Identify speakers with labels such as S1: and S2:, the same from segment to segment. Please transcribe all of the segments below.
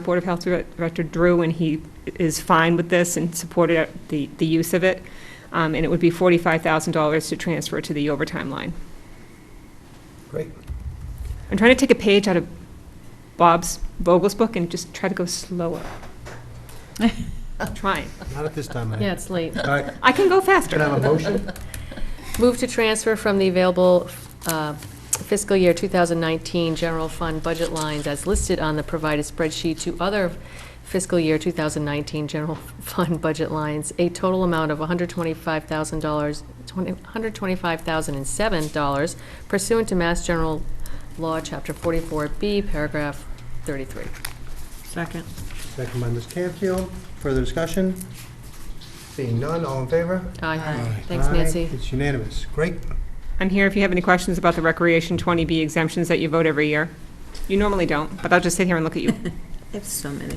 S1: Board of Health Director Drew, and he is fine with this and supported the, the use of it. Um, And it would be $45,000 to transfer to the overtime line.
S2: Great.
S1: I'm trying to take a page out of Bob's Vogel's book and just try to go slower. I'm Trying.
S2: Not at this time,
S3: Yeah,
S2: I.
S3: it's late.
S2: All right,
S1: I can go
S2: can I have
S1: faster.
S2: a motion?
S3: Move to transfer from the available uh, fiscal year 2019 general fund budget lines as listed on the provided spreadsheet to other fiscal year 2019 general fund budget lines, a total amount of $125,000, 20 $125,007 pursuant to Mass General Law, Chapter 44B, Paragraph 33.
S4: Second.
S2: Second by Ms. Canfield. Further discussion? Seeing none, all in favor?
S3: Aye. Thanks,
S2: Aye.
S3: Nancy.
S2: It's unanimous. Great.
S1: I'm here if you have any questions about the Recreation 20B exemptions that you vote every year. You normally don't, but I'll just sit here and look at you.
S4: I have so many.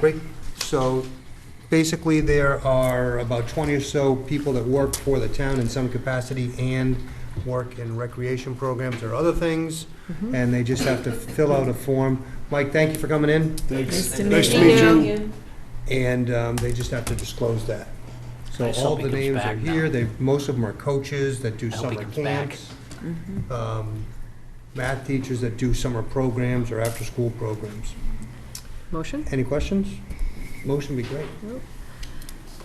S2: Great. So basically, there are about 20 or so people that work for the town in some capacity and work in recreation programs or other things,
S3: Mm-hmm.
S2: and they just have to fill out a form. Mike, thank you for coming in,
S4: Nice to
S5: Nice to
S3: meet
S5: meet
S3: you.
S5: you.
S2: and um, they just the disclose that. So
S5: I just
S2: all
S5: hope
S2: the
S5: he comes
S2: names are
S5: back now.
S2: here. They, most of them are coaches that do
S5: I hope he
S2: summer
S5: comes back.
S2: camps. um, math teachers that do summer programs or after-school programs.
S3: Motion?
S2: Any questions? Motion would be great.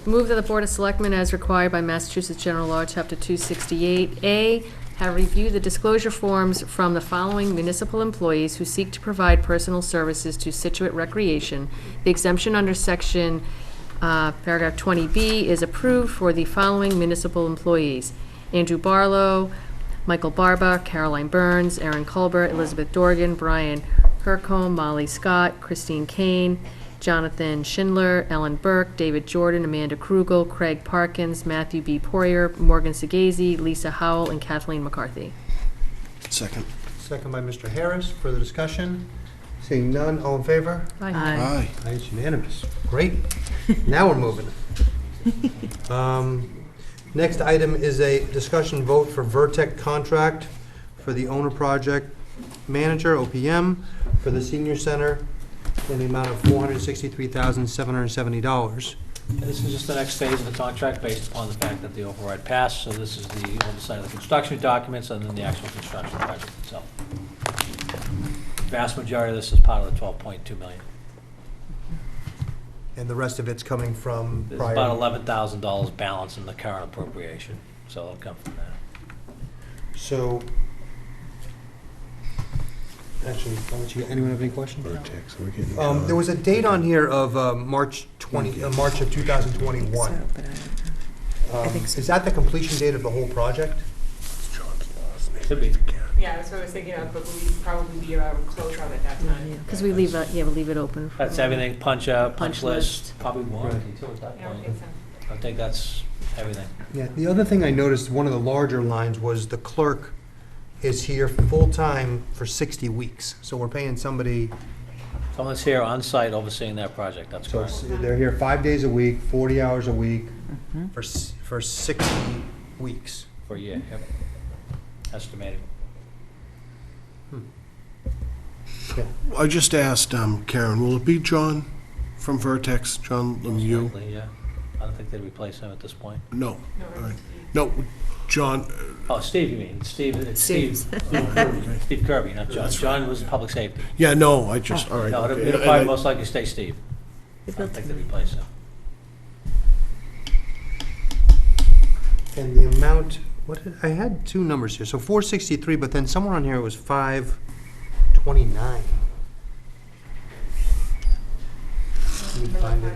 S3: Move that the Board of Selectmen, as required by Massachusetts General Law, Chapter 268A, have reviewed the disclosure forms from the following municipal employees who seek to provide personal services to Situate Recreation. The exemption under Section, uh, Paragraph 20B is approved for the following municipal employees: Andrew Barlow, Michael Barba, Caroline Burns, Aaron Culbert, Elizabeth Dorgan, Brian Hercombe, Molly Scott, Christine Kane, Jonathan Schindler, Ellen Burke, David Jordan, Amanda Krugel, Craig Parkins, Matthew B. Poirier, Morgan Segazy, Lisa Howell, and Kathleen McCarthy.
S5: Second.
S2: Second by Mr. Harris. Further discussion? Seeing none, all in favor?
S5: Aye.
S2: Aye, It's unanimous. Great. Now we're moving. Um, Next item is a discussion vote for Vertec contract for the owner project manager, OPM, for the senior center in the amount of $463,770.
S6: This is just the next phase of the contract based upon the fact that the override passed, so this is the oversight of the construction documents and then the actual construction project itself. Vast majority of this is part of the 12.2 million.
S2: And the rest of it's coming from
S6: There's
S2: prior.
S6: about $11,000 balance in the current appropriation, so it'll come from that.
S2: So, actually, I'll let you, anyone have any questions?
S5: Vertex, we're getting.
S2: Um, there was a date on here of, uh, March twenty, uh, March of two thousand twenty-one.
S4: So, but I don't know. I think so.
S2: Um, Is that the completion date of the whole project?
S6: Should be.
S1: Yeah, that's what I was thinking of, but we'd probably be around close on at that time.
S3: Because we leave, it- yeah, we leave it open. for-
S6: That's everything, punch out, punch
S3: Punch
S6: list, probably warranty
S2: Right.
S6: too at that point. I think that's everything.
S2: Yeah, the other thing I noticed, one of the larger lines was the clerk is here full-time for sixty weeks. So we're paying somebody,
S6: Someone's here on site overseeing that project, that's
S2: so
S6: correct.
S2: s- they're here five days a week, forty hours a week, for, s- for sixty weeks.
S6: For a year, yep. Estimated.
S5: I just asked um, Karen, will it be John from Vertex, John um, Lemieux?
S6: Likely, Yeah, I don't think they'd replace him at this point.
S5: No. All right. No, John, uh,
S6: Oh, Steve, you mean, Steve, it's Steve. Steve Kirby, not John. John was public safety.
S5: yeah, no, I just, all right.
S6: No, it'll
S5: okay.
S6: it'll
S5: And
S6: probably
S5: I-
S6: most likely stay Steve. I don't think they replace him.
S2: And the amount, what, did- I had two numbers here, so four sixty-three, but then somewhere on here it was five twenty-nine. Let me find it.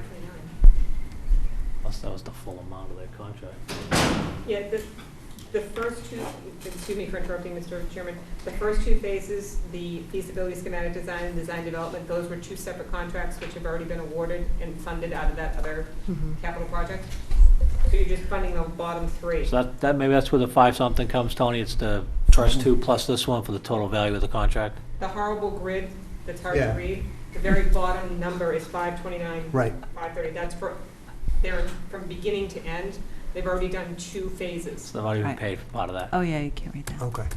S6: Unless that was the full amount of their contract.
S1: Yeah, the, the first two, excuse me for interrupting, Mr. Chairman, the first two phases, the feasibility schematic design and design development, those were two separate contracts which have already been awarded and funded out of that other
S3: Mm-hmm.
S1: capital project. So you're just funding the bottom three.
S6: So that, that, maybe that's where the five-something comes, Tony. It's the first two plus this one for the total value of the contract.
S1: The horrible grid that's hard to
S2: Yeah.
S1: read, the very bottom number is five twenty-nine,
S2: Right,
S1: five thirty, that's for, they're from beginning to end, they've already done two phases.
S6: So they've already been
S4: Right.
S6: paid for part of that.
S4: Oh, yeah, you can't read that.
S2: okay.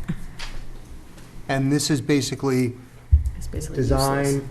S2: And this is basically
S3: It's basically useless.
S2: design,